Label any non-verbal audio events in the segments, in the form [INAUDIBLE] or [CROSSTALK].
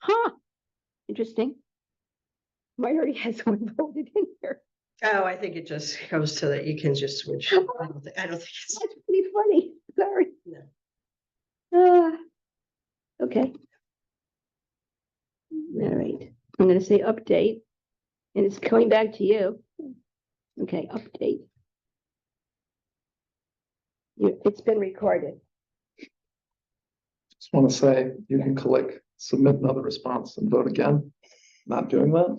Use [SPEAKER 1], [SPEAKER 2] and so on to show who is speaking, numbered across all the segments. [SPEAKER 1] Huh, interesting. Mine already [LAUGHS] has one voted in here.
[SPEAKER 2] Oh, I think it just goes to that you can just [LAUGHS] switch. I don't thi- I don't think it's,
[SPEAKER 1] That's pretty funny, sorry.
[SPEAKER 2] No.
[SPEAKER 1] Ah, okay. All right, I'm gonna say update, and it's coming back to you. Okay, update. You- It's been recorded.
[SPEAKER 3] Just want to say, you can click submit another response and vote again. Not doing that,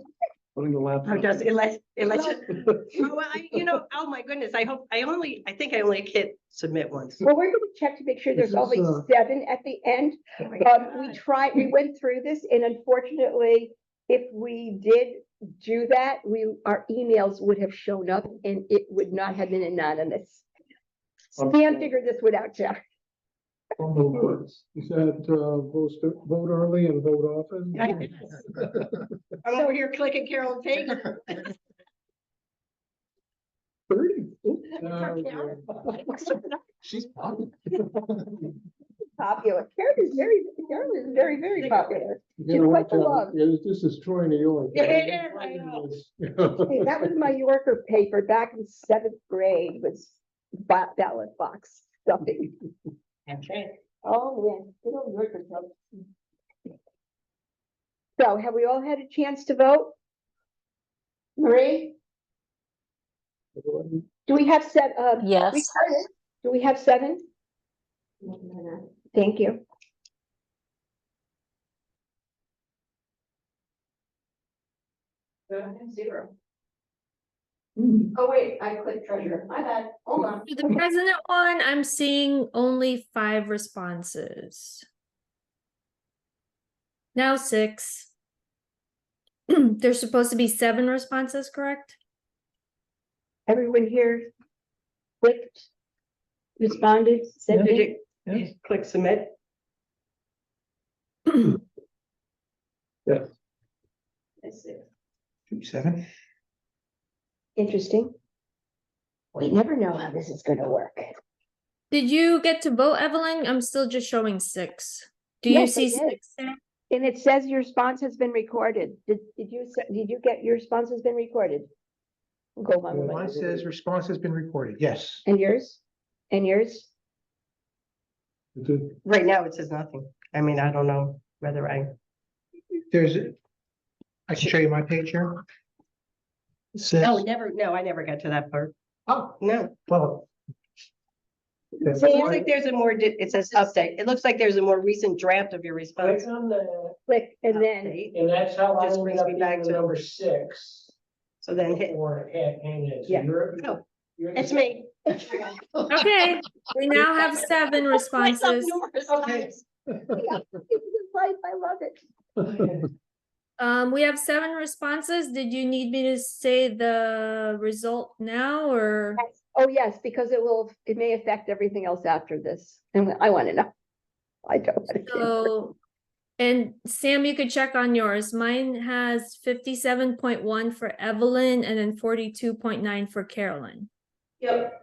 [SPEAKER 3] putting the
[SPEAKER 2] oh,
[SPEAKER 3] laptop.
[SPEAKER 2] does it lets, it lets you.
[SPEAKER 3] [LAUGHS]
[SPEAKER 2] Well, I, you know, oh my goodness, I hope, I only, I think I only hit submit once.
[SPEAKER 1] Well, we're gonna check to make sure there's
[SPEAKER 3] This is,
[SPEAKER 1] only
[SPEAKER 3] uh,
[SPEAKER 1] seven at the end.
[SPEAKER 2] Oh my
[SPEAKER 1] Um, we
[SPEAKER 2] God.
[SPEAKER 1] tried, we went through this and unfortunately, if we did do that, we, our emails would have shown up and it would not have been anonymous. Stan figured this one out, Jeff. [LAUGHS]
[SPEAKER 3] From the words.
[SPEAKER 4] Is that, uh, vote, vote early and vote often?
[SPEAKER 2] I guess. I'm over here clicking Carol Payne.
[SPEAKER 3] Thirty.
[SPEAKER 2] Well,
[SPEAKER 3] She's popular.
[SPEAKER 1] Popular. Karen is very, Karen is very, very popular.
[SPEAKER 4] You know
[SPEAKER 1] quite
[SPEAKER 4] what,
[SPEAKER 1] the
[SPEAKER 4] John?
[SPEAKER 1] love.
[SPEAKER 4] Yeah, This is Troy, New York.
[SPEAKER 2] It is, I know.
[SPEAKER 4] [LAUGHS]
[SPEAKER 1] Hey, That was my Yorker paper back in seventh grade was ba- ballot box stuffing. Oh, yeah. So have we all had a chance to vote? Marie, do we have set, uh,
[SPEAKER 5] Yes,
[SPEAKER 1] do we have seven? Thank you.
[SPEAKER 6] Uh, Zero.
[SPEAKER 1] Mm-hmm.
[SPEAKER 6] Oh, wait, I clicked treasure. My bad. Hold on.
[SPEAKER 5] For the president one, I'm seeing only five responses. Now six. [CLEARS THROAT] There's supposed to be seven responses, correct?
[SPEAKER 1] Everyone here clicked, responded, said
[SPEAKER 2] Did
[SPEAKER 1] they
[SPEAKER 2] you- did you Click submit.
[SPEAKER 3] Seven.
[SPEAKER 1] interesting. We never know how this is gonna work.
[SPEAKER 5] Did you get to vote, Evelyn? I'm still just showing six. Do you
[SPEAKER 1] Yes, I
[SPEAKER 5] see
[SPEAKER 1] did.
[SPEAKER 5] six? there?
[SPEAKER 1] And it says your response has been recorded. Did, did you, se- did you get, your response has been recorded? Go on.
[SPEAKER 7] Mine says response has been recorded, yes.
[SPEAKER 1] And yours? And yours?
[SPEAKER 2] Right now, it says nothing. I mean, I don't know whether I,
[SPEAKER 7] There's, I can show you my page here. It says-
[SPEAKER 2] oh, never, no, I never got to that part.
[SPEAKER 7] oh,
[SPEAKER 2] No.
[SPEAKER 7] well.
[SPEAKER 2] It looks like there's a more, di- it says update. It looks like there's a more recent draft of your response.
[SPEAKER 1] Click and then, [LAUGHS]
[SPEAKER 2] Update.
[SPEAKER 8] And that's how I
[SPEAKER 2] Just brings
[SPEAKER 8] ended
[SPEAKER 2] me
[SPEAKER 8] up
[SPEAKER 2] back
[SPEAKER 8] being
[SPEAKER 2] to-
[SPEAKER 8] the number six
[SPEAKER 2] So then hit,
[SPEAKER 8] for Pat Hannis.
[SPEAKER 1] Yeah.
[SPEAKER 2] Oh, it's
[SPEAKER 8] It's
[SPEAKER 2] me.
[SPEAKER 5] Okay, we now have seven responses.
[SPEAKER 2] Okay.
[SPEAKER 1] this is life, I love it.
[SPEAKER 5] Um, we have seven responses. Did you need me to say the result now or?
[SPEAKER 1] Oh, yes, because it will, it may affect everything else after this, and I wanna know. I don't. wanna know.
[SPEAKER 5] So, and Sam, you could check on yours. Mine has fifty-seven point one for Evelyn and then forty-two point nine for Carolyn.
[SPEAKER 6] Yep.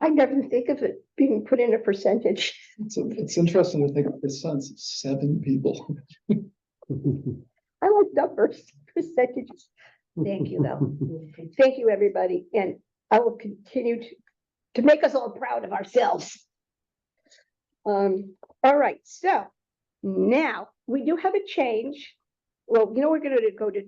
[SPEAKER 1] I never think of it being put in a percentage. [LAUGHS]
[SPEAKER 3] It's, it's interesting to think of the sense of seven people.
[SPEAKER 1] I like numbers, percentages. Thank you, though.
[SPEAKER 3] [LAUGHS]
[SPEAKER 1] Thank you, everybody, and I will continue to, to make us all proud of ourselves. Um, all right, so now we do have a change. Well, you know, we're gonna go to,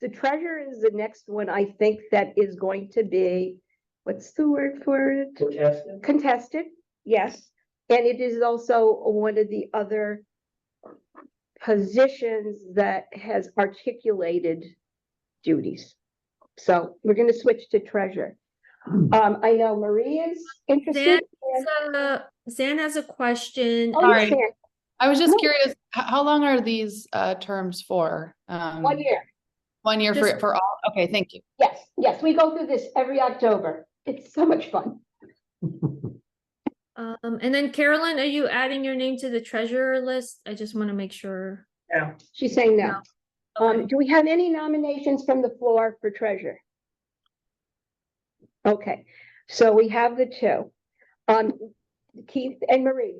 [SPEAKER 1] the treasure is the next one, I think, that is going to be, what's the word for it?
[SPEAKER 2] [LAUGHS]
[SPEAKER 1] Contested, yes, and it is also one of the other positions that has articulated duties. So we're gonna switch to treasure. Um, I know Maria's interested. and-
[SPEAKER 5] Uh, Zan has a question.
[SPEAKER 1] Oh, yes,
[SPEAKER 9] Sorry.
[SPEAKER 1] Ann,
[SPEAKER 9] I was just
[SPEAKER 1] No.
[SPEAKER 9] curious, h- how long are these uh terms for? Um,
[SPEAKER 1] One year,
[SPEAKER 9] One year for
[SPEAKER 5] Just-
[SPEAKER 9] for all? Okay, thank you.
[SPEAKER 1] yes, yes, we go through this every October. It's so much fun.
[SPEAKER 5] Um, and then Carolyn, are you adding your name to the treasurer list? I just want to make sure.
[SPEAKER 1] She's saying no. Um,
[SPEAKER 5] Okay.
[SPEAKER 1] do we have any nominations from the floor for treasure? Okay, so we have the two. Um, Keith and Marie,